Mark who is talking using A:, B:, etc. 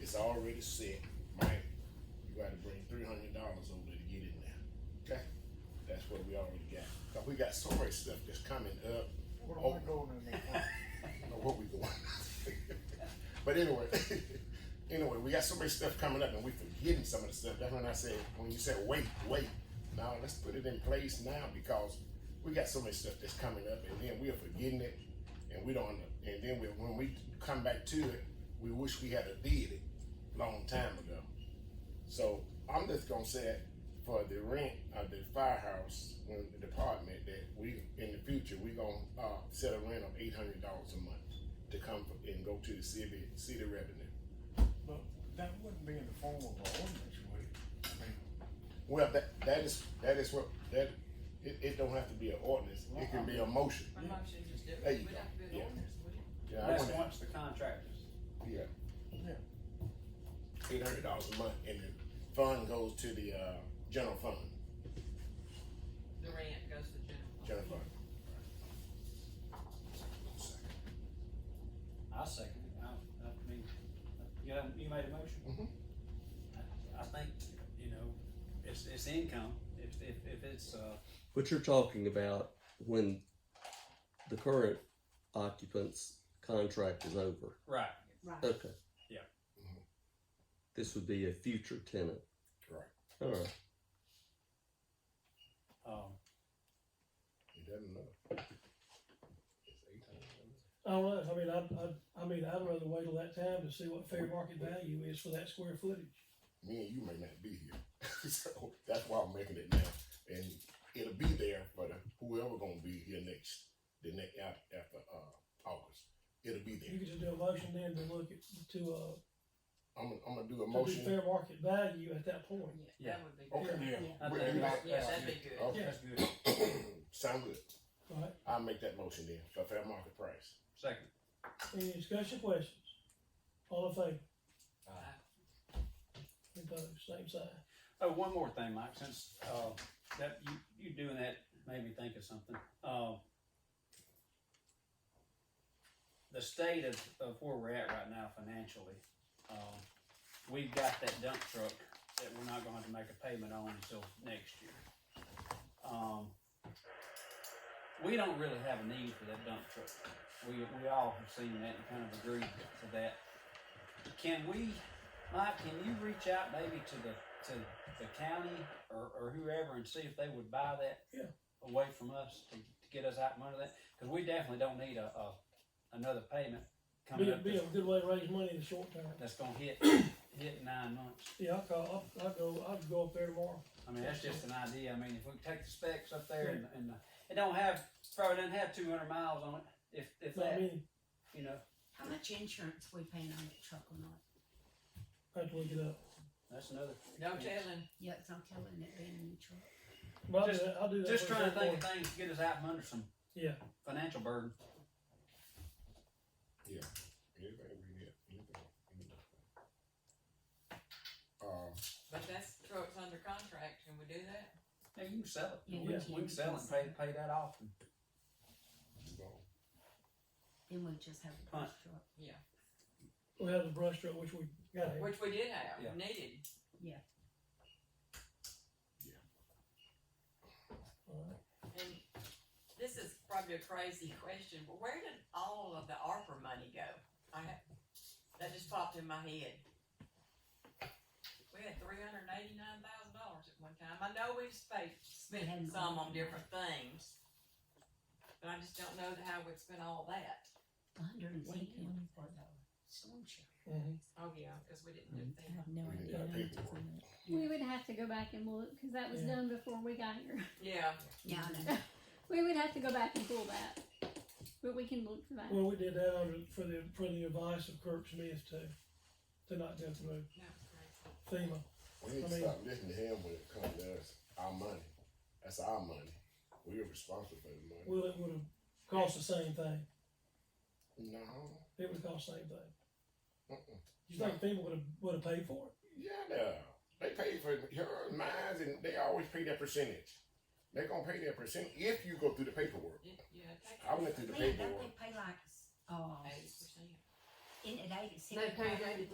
A: it's already set, right? You gotta bring three hundred dollars over to get in there, okay? That's what we already got, cause we got so much stuff that's coming up.
B: What am I going in there for?
A: know what we doing. but anyway, anyway, we got so much stuff coming up and we forgetting some of the stuff. That's when I said, when you said wait, wait, now let's put it in place now because we got so much stuff that's coming up and then we are forgetting it and we don't, and then we, when we come back to it, we wish we had a did it long time ago. So I'm just gonna say for the rent of the firehouse when the department that we in the future we gonna uh, set a rent of eight hundred dollars a month to come f- and go to the city city revenue.
B: But that wouldn't be in the form of an ordinance, would it? I mean,
A: Well, that that is that is what that it, it don't have to be an ordinance. It can be a motion.
C: My mom should just do it.
A: There you
C: We'd
A: go.
C: have to do
A: Yeah.
C: an ordinance, wouldn't we?
A: Yeah, I
D: That's
A: want
D: once the contractors.
A: yeah,
B: yeah,
A: eight hundred dollars a month, and the fund goes to the uh, general fund.
C: The rent goes to general. fund.
A: General fund.
D: I second it. I, I mean, you know, you made a motion.
A: Mhm.
D: I, I think, you know, it's, it's income. If, if, if it's, uh,
E: But you're talking about when the current occupant's contract is over.
D: right,
A: Uh,
F: Right.
E: Okay.
D: Yeah.
E: This would be a future tenant.
A: Right.
E: All right.
D: um,
A: It doesn't matter. It's eight hundred dollars.
G: I don't know, I mean, I, I, I mean, I'd rather wait till that time to see what fair market value is for that square footage.
A: me and you may not be here. so that's why I'm making it now. And it'll be there for the, whoever gonna be here next, the next, after, after uh, August. It'll be
G: You
A: there.
G: could just do a motion then to look at, to, uh,
A: I'm, gonna- I'm gonna do a
G: to do
A: motion.
G: fair market value at that point.
C: Yeah, that
D: Yeah.
C: would be
A: Okay.
C: good.
B: yeah.
D: I
A: Well,
D: think
A: you-
D: that's-
C: Yeah,
D: that's
C: that'd
D: good.
C: be good.
A: Okay.
D: That's good.
A: Oh, Sound good.
G: Alright,
A: I'll make that motion then for fair market price.
D: Second.
G: any discussion questions? All in favor?
C: Aye.
G: Any Opposed, same sign.
D: Oh, one more thing, Mike, since, uh, that, you, you doing that made me think of something. Uh, the state of, of where we're at right now financially, um, we've got that dump truck that we're not gonna have to make a payment on until next year. Um, we don't really have a need for that dump truck. We, we all have seen that and kind of agreed to that. Can we, Mike, can you reach out maybe to the, to the county or, or whoever and see if they would buy that?
G: Yeah.
D: Away from us to, to get us out from under that, cause we definitely don't need a, a, another payment
G: Be,
D: coming
G: a-
D: up
G: be a
D: that's,
G: good way to raise money in the short term.
D: that's gonna hit, hit in nine months.
G: Yeah, I'll call, I'll, I'll go, I'll go up there tomorrow.
D: I mean, that's just an idea. I mean, if we take the specs up there and, and uh, it don't have, probably doesn't have two hundred miles on it, if, if
G: But I
D: that,
G: mean,
D: you know,
F: How much insurance we paying on that truck or not?
G: I have to look it up.
D: that's another.
C: No telling.
F: Yeah, it's not killing it being in the truck.
G: But I'll do
D: Just-
G: that, I'll do that.
D: Just
G: for the
D: trying to
G: short
D: think of
G: term.
D: things to get us out from under some
G: Yeah,
D: financial burden.
A: Everybody we here, everybody, everybody. Uh,
C: But that's truck's under contract. Can we do that?
D: Yeah, you can sell it.
F: Yeah,
D: We
F: we
D: can, we
F: can.
D: can sell it and pay, pay that off. and-
A: you know,
F: Then we just have a brush truck.
G: we have the brush truck, which we got here.
C: Which we did have,
D: Yeah.
C: needed.
G: All right.
C: And this is probably a crazy question, but where did all of the ARPA money go? I ha that just popped in my head. We had three hundred and eighty-nine thousand dollars at one time. I know we've spent,
F: hadn't
C: spent some on
F: all.
C: different things. But I just don't know how we'd spent all that.
F: A hundred and
C: What do you
F: something
C: want
F: for the storm shelter.
G: Mhm.
C: Oh, yeah, cause we didn't do
F: I
C: that.
F: have no
A: We
F: idea.
A: got
F: how much
A: paperwork.
F: in it.
H: We would have to go back and look because that was
G: Yeah.
H: done before we got here.
C: Yeah,
F: Yeah, I know.
H: We would have to go back and pull that, but we can look for that.
G: Well, we did that under, for the, for the advice of Kirk Smith too, to not go through
C: that was crazy.
G: FEMA.
A: We need
G: I
A: to
G: mean-
A: stop listening to him when it comes to us, our money. That's our money. We are responsible for the money.
G: Well, it would have cost the same thing.
A: No,
G: It would have cost the same thing.
A: uh-uh.
G: You think FEMA would have, would have paid for it?
A: Yeah, no. They pay for your mines and they always pay their percentage. They're gonna pay their percent if you go through the paperwork.
C: Yeah, yeah, take
A: I went through the
F: Man, don't
A: paperwork.
F: they pay like, oh,
C: eighty percent.
F: in at eighty-six?
C: They paid eighty